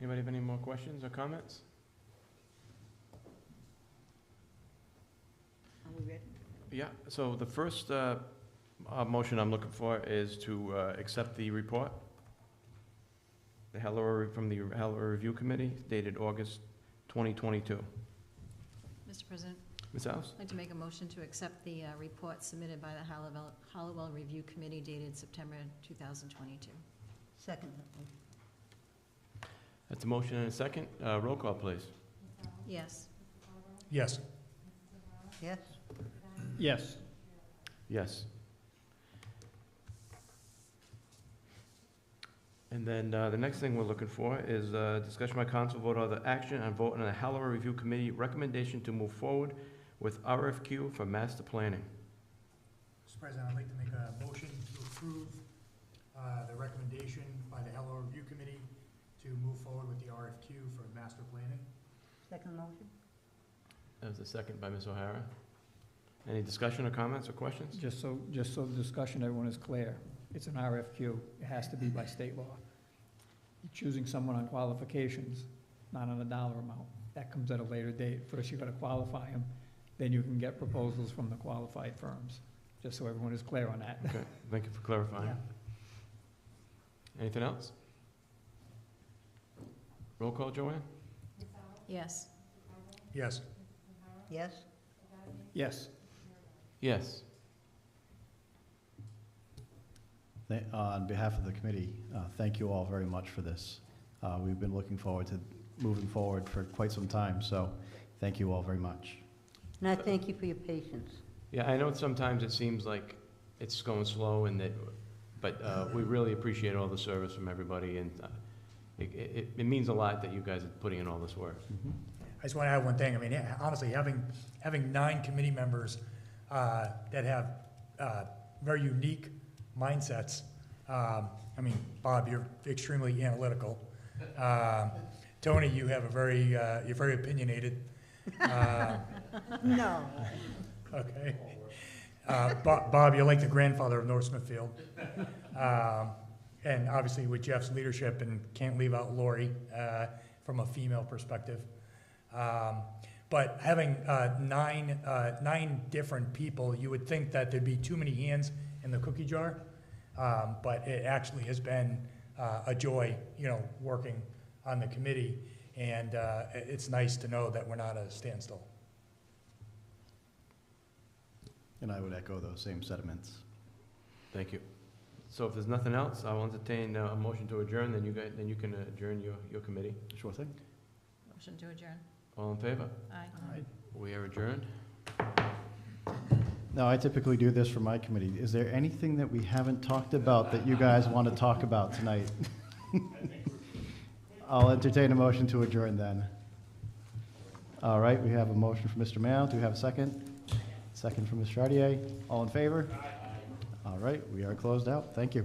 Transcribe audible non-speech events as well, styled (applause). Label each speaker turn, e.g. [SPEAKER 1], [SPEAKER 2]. [SPEAKER 1] Anybody have any more questions or comments?
[SPEAKER 2] Are we ready?
[SPEAKER 1] Yeah, so the first uh, uh, motion I'm looking for is to uh, accept the report, the Heller, from the Heller Review Committee dated August 2022.
[SPEAKER 3] Mr. President,
[SPEAKER 1] Ms. House?
[SPEAKER 3] I'd like to make a motion to accept the uh, report submitted by the Halliwell Halliwell Review Committee dated September 2022.
[SPEAKER 2] Second.
[SPEAKER 1] That's a motion and a second. Uh, Roll call, please.
[SPEAKER 3] Yes.
[SPEAKER 4] Yes.
[SPEAKER 2] Yes?
[SPEAKER 4] Yes.
[SPEAKER 1] Yes. And then uh, the next thing we're looking for is uh, discussion by council vote on the action on vote on the Halloween Review Committee recommendation to move forward with RFQ for master planning.
[SPEAKER 4] Mr. President, I'd like to make a motion to approve uh, the recommendation by the Hello Review Committee to move forward with the RFQ for master planning.
[SPEAKER 2] Second motion?
[SPEAKER 1] That was the second by Ms. O'Hara. Any discussion or comments or questions?
[SPEAKER 5] Just so, just so the discussion, everyone is clear, it's an RFQ, it has to be by state law. You're Choosing someone on qualifications, not on a dollar amount, that comes at a later date. First, you gotta qualify them, then you can get proposals from the qualified firms, just so everyone is clear on that.
[SPEAKER 1] Okay, thank you for clarifying.
[SPEAKER 4] Yeah.
[SPEAKER 1] Anything else? Roll call, Joanne?
[SPEAKER 3] Yes.
[SPEAKER 4] Yes.
[SPEAKER 2] Yes?
[SPEAKER 5] Yes,
[SPEAKER 1] Yes.
[SPEAKER 6] Th- uh, On behalf of the committee, uh, thank you all very much for this. Uh, We've been looking forward to moving forward for quite some time, so thank you all very much.
[SPEAKER 2] And I thank you for your patience.
[SPEAKER 1] Yeah, I know sometimes it seems like it's going slow and that, but uh, we really appreciate all the service from everybody and uh, it, it, it means a lot that you guys are putting in all this work.
[SPEAKER 6] Mm-hmm.
[SPEAKER 4] I just want to add one thing. I mean, yeah, honestly, having, having nine committee members uh, that have uh, very unique mindsets, um, I mean, Bob, you're extremely analytical. Um, Tony, you have a very, uh, you're very opinionated. Um,
[SPEAKER 2] No.
[SPEAKER 4] Okay. Uh, Bo- Bob, you're like the grandfather of North Smithfield. Um, And obviously with Jeff's leadership, and can't leave out Lori uh, from a female perspective. Um, But having uh, nine, uh, nine different people, you would think that there'd be too many hands in the cookie jar. Um, But it actually has been uh, a joy, you know, working on the committee. And uh, it- it's nice to know that we're not at a standstill.
[SPEAKER 6] And I would echo those same sentiments.
[SPEAKER 1] Thank you. So if there's nothing else, I'll entertain uh, a motion to adjourn, then you guys, then you can adjourn your, your committee.
[SPEAKER 6] Sure thing.
[SPEAKER 3] Motion to adjourn.
[SPEAKER 1] All in favor?
[SPEAKER 3] Aye.
[SPEAKER 1] We are adjourned.
[SPEAKER 6] Now, I typically do this for my committee. Is there anything that we haven't talked about that you guys want to talk about tonight? (laughs) I'll entertain a motion to adjourn then. All right, we have a motion from Mr. Mayo. Do we have a second? Second from Ms. Chartier. All in favor? All right, we are closed out. Thank you.